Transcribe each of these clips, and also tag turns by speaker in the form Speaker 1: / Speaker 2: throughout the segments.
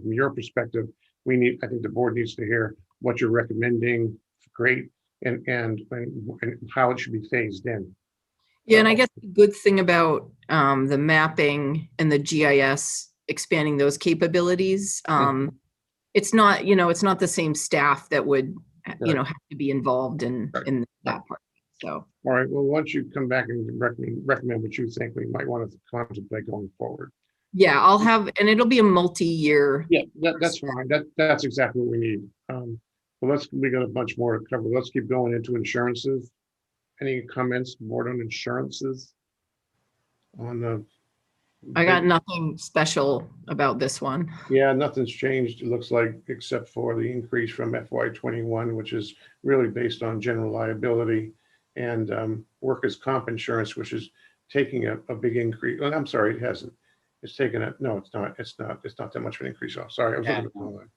Speaker 1: from your perspective, we need, I think the board needs to hear what you're recommending, great, and, and, and how it should be phased in.
Speaker 2: Yeah, and I guess the good thing about um, the mapping and the GIS, expanding those capabilities, um, it's not, you know, it's not the same staff that would, you
Speaker 1: Right.
Speaker 2: know, have to be involved in,
Speaker 1: Right.
Speaker 2: in that part. So,
Speaker 1: All right, well, once you come back and recommend, recommend what you think we might want to contemplate going forward.
Speaker 2: yeah,
Speaker 1: Mm.
Speaker 2: I'll have, and it'll be a multi-year.
Speaker 1: Yeah, that, that's fine. That, that's exactly what we need. Um, but let's, we got a bunch more to cover. Let's keep going into insurances. Any comments, board on insurances? On the.
Speaker 2: I got nothing special about this one.
Speaker 1: Yeah, nothing's changed, it looks like, except for the increase from FY twenty-one, which is really based on general liability and um, workers' comp insurance, which is taking a, a big increase. Oh, I'm sorry, it hasn't. It's taken a, no, it's not, it's not, it's not that much of an increase. Oh, sorry. I was looking at the wrong line.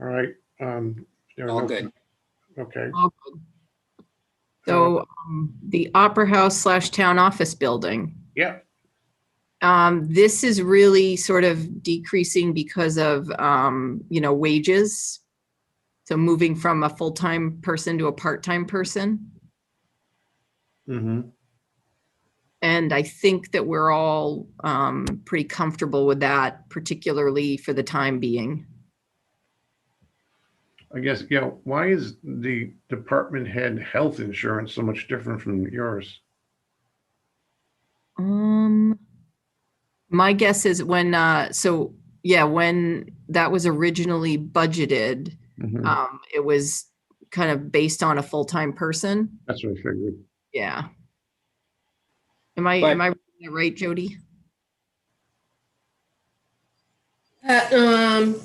Speaker 1: All right. um, there are
Speaker 3: All
Speaker 1: no-
Speaker 3: good.
Speaker 1: Okay.
Speaker 2: All good. So um, the Opera House slash Town Office Building.
Speaker 1: Yeah,
Speaker 2: Um, this is really sort of decreasing because of, um, you know, wages. So moving from a full-time person to a part-time person.
Speaker 1: mhm,
Speaker 2: And I think that we're all, um, pretty comfortable with that, particularly for the time being.
Speaker 1: I guess, yeah, why is the department head health insurance so much different from yours?
Speaker 2: Um, my guess is when, uh, so, yeah, when that was originally budgeted,
Speaker 3: Mm-hmm.
Speaker 1: Mhm,
Speaker 2: um, it was kind of based on a full-time person.
Speaker 1: That's what I figured.
Speaker 2: Yeah. Am I,
Speaker 3: But-
Speaker 2: am I reading that right, Jody?
Speaker 4: Uh, um,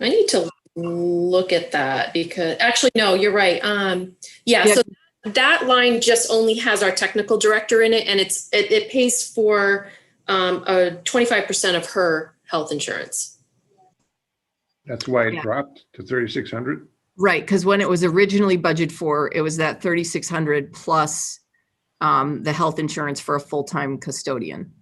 Speaker 4: I need to look at that because actually, no, you're right. Um, yeah,
Speaker 2: Yeah.
Speaker 4: so that line just only has our technical director in it and it's, it, it pays for, um, uh, twenty-five percent of her health insurance.
Speaker 1: That's why it
Speaker 2: Yeah.
Speaker 1: dropped to thirty-six hundred?
Speaker 2: Right, because when it was originally budgeted for, it was that thirty-six hundred plus um, the health insurance for a full-time custodian.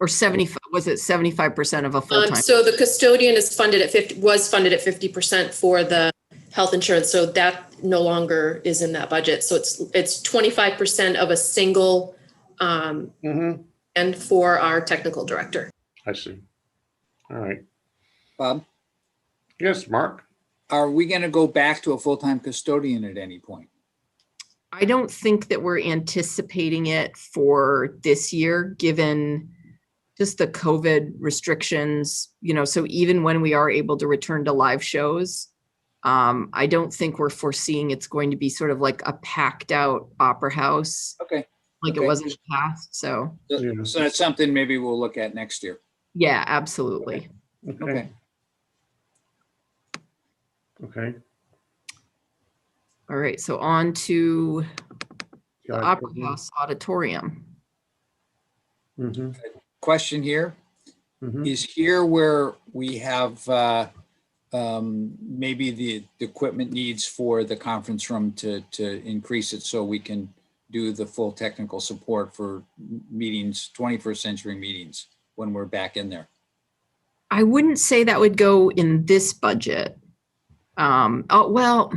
Speaker 2: Or seventy-five, was it seventy-five percent of a
Speaker 4: Um,
Speaker 2: full-time?
Speaker 4: so the custodian is funded at fifty, was funded at fifty percent for the health insurance, so that no longer is in that budget. So it's, it's twenty-five percent of a single, um,
Speaker 1: Mm-hmm.
Speaker 4: and for our technical director.
Speaker 1: I see. All right.
Speaker 3: Bob,
Speaker 1: Yes, Mark?
Speaker 3: are we going to go back to a full-time custodian at any point?
Speaker 2: I don't think that we're anticipating it for this year, given just the COVID restrictions, you know, so even when we are able to return to live shows, um, I don't think we're foreseeing it's going to be sort of like a packed out opera house,
Speaker 3: Okay,
Speaker 2: like it
Speaker 3: Okay.
Speaker 2: was in the past. So,
Speaker 1: Yeah.
Speaker 3: so that's something maybe we'll look at next year.
Speaker 2: yeah, absolutely.
Speaker 3: Okay.
Speaker 1: Okay.
Speaker 2: All right, so on to the
Speaker 1: Got it.
Speaker 2: Opera House Auditorium.
Speaker 1: Mhm,
Speaker 3: Question here,
Speaker 1: mhm.
Speaker 3: is here where we have uh, um, maybe the the equipment needs for the conference room to, to increase it so we can do the full technical support for meetings, 21st century meetings, when we're back in there?
Speaker 2: I wouldn't say that would go in this budget. Um, oh, well,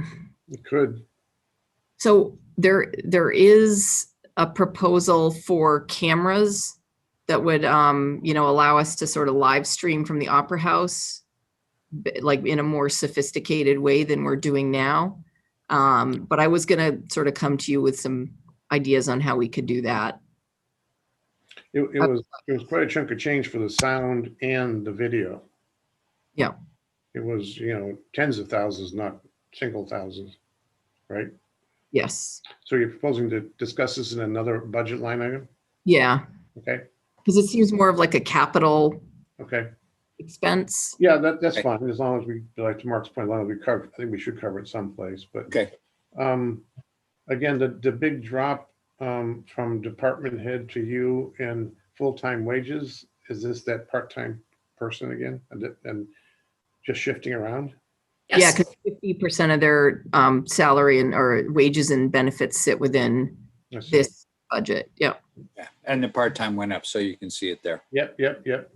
Speaker 1: It Could,
Speaker 2: So there, there is a proposal for cameras that would, um, you know, allow us to sort of live stream from the Opera House, b- like in a more sophisticated way than we're doing now. Um, but I was gonna sort of come to you with some ideas on how we could do that.
Speaker 1: it, it was, it was quite a chunk of change for the sound and the video.
Speaker 2: Yeah.
Speaker 1: It was, you know, tens of thousands, not single thousands, right?
Speaker 2: Yes,
Speaker 1: So you're proposing to discuss this in another budget line item?
Speaker 2: yeah,
Speaker 1: Okay,
Speaker 2: because it seems more of like a capital
Speaker 1: okay.
Speaker 2: expense.
Speaker 1: Yeah, that, that's
Speaker 3: Okay.
Speaker 1: fine, as long as we, like to Mark's point, as long as we cover, I think we should cover it someplace, but.
Speaker 3: Okay.
Speaker 1: Um, again, the, the big drop, um, from department head to you in full-time wages, is this that part-time person again? And, it- and just shifting around?
Speaker 2: Yeah,
Speaker 4: Yes.
Speaker 2: because fifty percent of their, um, salary and, or wages and benefits sit within
Speaker 1: Let's see.
Speaker 2: this budget. Yep.
Speaker 3: Yeah, And the part-time went up, so you can see it there.
Speaker 1: Yep, yep, yep.